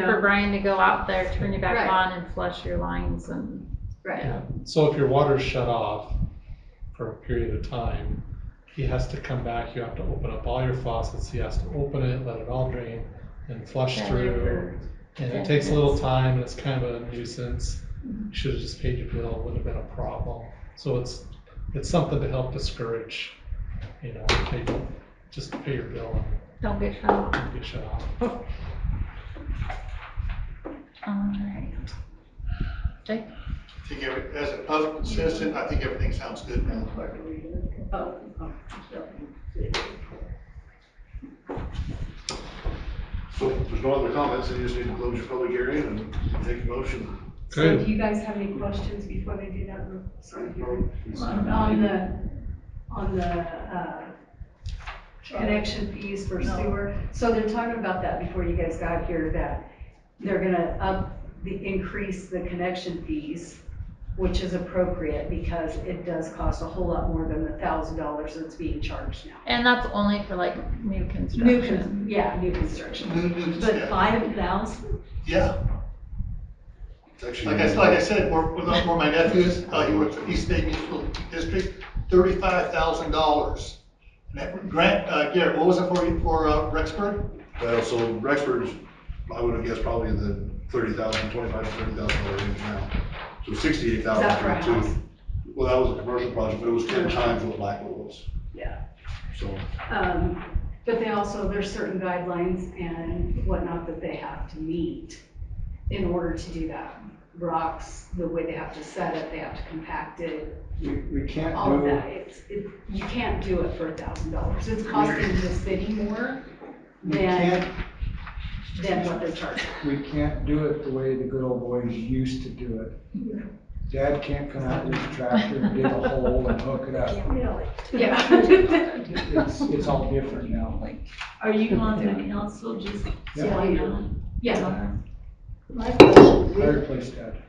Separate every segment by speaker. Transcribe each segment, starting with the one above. Speaker 1: for Brian to go out there, turn you
Speaker 2: Right.
Speaker 1: back on and flush your lines and,
Speaker 2: Right.
Speaker 3: Yeah, so if your water's shut off for a period of time, he has to come back, you have to open up all your faucets, he has to open it, let it all drain, and flush
Speaker 1: Yeah,
Speaker 3: through. And it takes a little time, and it's kind of a nuisance, you should've just paid your bill, it wouldn't have been a problem. So it's, it's something to help discourage, you know, people, just pay your bill
Speaker 1: don't get shut off.
Speaker 3: and get shut off.
Speaker 1: All right. Jake?
Speaker 4: I think every, as a public citizen, I think everything sounds good now.
Speaker 2: Oh, oh.
Speaker 4: So if there's no other comments, then you just need to close your public hearing and take a motion.
Speaker 5: So
Speaker 3: Good,
Speaker 5: do you guys have any questions before they do that? Sorry. On the, on the, uh, connection fees for
Speaker 2: No.
Speaker 5: sewer?
Speaker 2: So they're talking about that before you guys got here, that they're gonna up, the, increase the connection fees, which is appropriate because it does cost a whole lot more than the thousand dollars that's being charged now.
Speaker 1: And that's only for like new
Speaker 2: New,
Speaker 1: construction.
Speaker 2: con- yeah, new construction. But
Speaker 4: Yeah,
Speaker 2: five thousand?
Speaker 4: Yeah.
Speaker 6: It's actually-
Speaker 4: like I, like I said, where, where the- where my nephew is, uh, he works for East State Municipal District, thirty-five thousand dollars. And that grant, uh, Garrett, what was it for, you- for, uh, Rexburg?
Speaker 6: Well, so Rexford's, I would have guessed probably in the thirty thousand, twenty-five to thirty thousand dollar range now. So sixty-eight
Speaker 2: Is that for a
Speaker 6: thousand
Speaker 2: house?
Speaker 6: twenty-two. Well, that was a commercial project, but it was ten times what Blackwell was.
Speaker 2: Yeah.
Speaker 6: So,
Speaker 2: Um, but they also, there's certain guidelines and whatnot that they have to meet in order to do that. Rocks, the way they have to set it, they have to compact it,
Speaker 7: We, we can't
Speaker 2: all of
Speaker 7: do,
Speaker 2: that, it's, it, you can't do it for a thousand dollars, it's costing the city more
Speaker 7: we can't,
Speaker 2: than, than what they're charging.
Speaker 7: we can't do it the way the good old boys used to do it. Dad can't come out with a tractor and dig a hole and hook it up.
Speaker 2: Yeah.
Speaker 7: It's, it's all different now.
Speaker 8: Are you on the council just?
Speaker 7: Yeah.
Speaker 2: Yeah,
Speaker 8: My question is,
Speaker 7: Fireplace dad.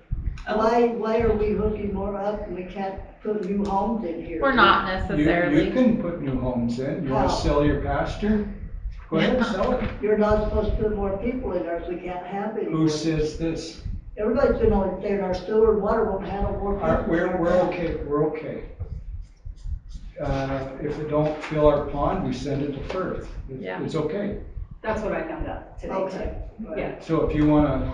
Speaker 8: Uh, why, why are we hooking more up and we can't put new homes in here?
Speaker 1: We're not
Speaker 7: You, you
Speaker 1: necessarily.
Speaker 7: can put new homes in. You wanna
Speaker 2: Oh.
Speaker 8: Wow.
Speaker 7: sell your pasture? Go ahead, sell it.
Speaker 8: You're not supposed to put more people in there if we can't have any.
Speaker 7: Who says this?
Speaker 8: Everybody's been on, saying our sewer and water won't handle more people.
Speaker 7: Our, we're, we're okay, we're okay. Uh, if it don't fill our pond, we send it to Firth. It's-
Speaker 1: Yeah.
Speaker 7: It's okay.
Speaker 2: that's what I found out today,
Speaker 8: Okay.
Speaker 2: too. yeah.
Speaker 7: So if you wanna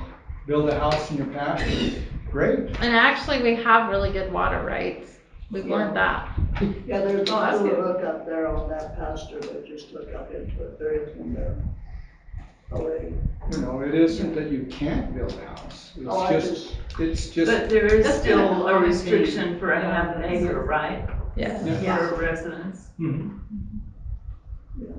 Speaker 7: build a house in your pasture, great.
Speaker 1: And actually, we have really good water rights. We've learned that.
Speaker 8: Yeah, there's
Speaker 1: Oh,
Speaker 8: a
Speaker 1: that's
Speaker 8: sewer
Speaker 1: good.
Speaker 8: hookup there on that pasture, but just look up into it, there is one there. Already.
Speaker 7: You know, it isn't that you can't build a house.
Speaker 8: Oh,
Speaker 7: It's
Speaker 8: I
Speaker 7: just, it's just,
Speaker 9: But there is
Speaker 2: That's
Speaker 9: still
Speaker 2: gonna
Speaker 9: a
Speaker 2: be-
Speaker 9: restriction for a half
Speaker 2: Yeah.
Speaker 9: acre, right?
Speaker 1: Yes.
Speaker 9: For residents.
Speaker 7: Mhm.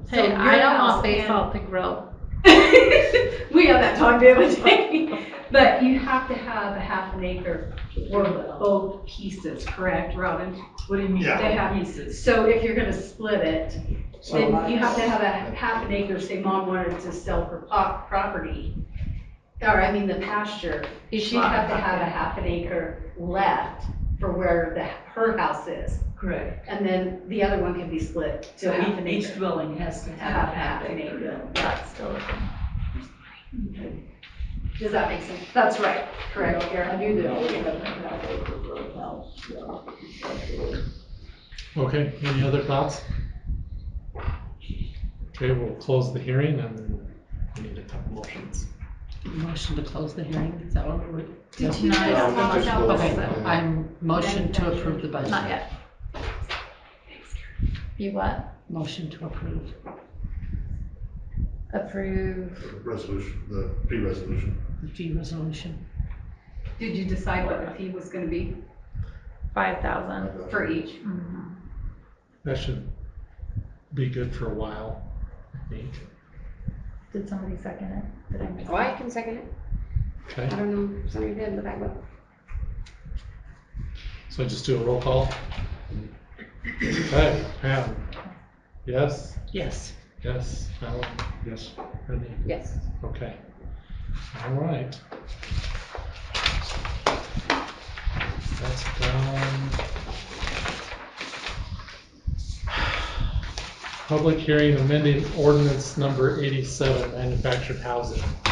Speaker 2: So
Speaker 1: Hey,
Speaker 2: your
Speaker 1: I don't
Speaker 2: house
Speaker 1: want
Speaker 2: and-
Speaker 1: basalt to grow.
Speaker 2: We had that talk the other day, but you have to have a half an acre or both pieces, correct, Robin?
Speaker 9: What do you mean?
Speaker 4: Yeah.
Speaker 2: They have
Speaker 9: pieces.
Speaker 2: So if you're gonna split it,
Speaker 7: so,
Speaker 2: Then you have to have a half an acre, say mom wanted to sell her po- property, or I mean the pasture, she'd have to have a half an acre left for where the, her house is.
Speaker 9: Correct.
Speaker 2: And then the other one can be split to
Speaker 9: So
Speaker 2: half an
Speaker 9: each- each
Speaker 2: acre.
Speaker 9: dwelling has to
Speaker 2: To
Speaker 9: have
Speaker 2: have
Speaker 9: a half acre.
Speaker 1: That's still a thing.
Speaker 2: Does that make sense? That's right, correct,
Speaker 8: I
Speaker 2: Karen?
Speaker 8: knew there was a half acre for a house, yeah.
Speaker 3: okay, any other thoughts? Okay, we'll close the hearing and we need a couple motions.
Speaker 10: Motion to close the hearing, is that what we're,
Speaker 1: Did you
Speaker 6: No, I
Speaker 1: guys
Speaker 7: um,
Speaker 6: think
Speaker 1: talk
Speaker 6: there's
Speaker 1: about
Speaker 6: still-
Speaker 1: this?
Speaker 6: Okay.
Speaker 10: I'm, motion to approve the budget.
Speaker 1: Not yet. You what?
Speaker 10: Motion to approve.
Speaker 1: Approve.
Speaker 6: resolution, the pre-resolution.
Speaker 10: The fee resolution.
Speaker 2: Did you decide what the fee was gonna be
Speaker 1: Five thousand.
Speaker 2: for each?
Speaker 3: That should be good for a while, I think.
Speaker 1: Did somebody second it? Did I miss
Speaker 11: Oh, I can second it.
Speaker 3: Okay,
Speaker 11: I don't know, if somebody did, but I will.
Speaker 3: so just do a roll call. Okay, Pam? Yes,
Speaker 10: Yes.
Speaker 3: yes, Alan? Yes. Brittany?
Speaker 11: Yes.
Speaker 3: Okay. All right. That's done. Public hearing amending ordinance number eighty-seven, manufactured housing.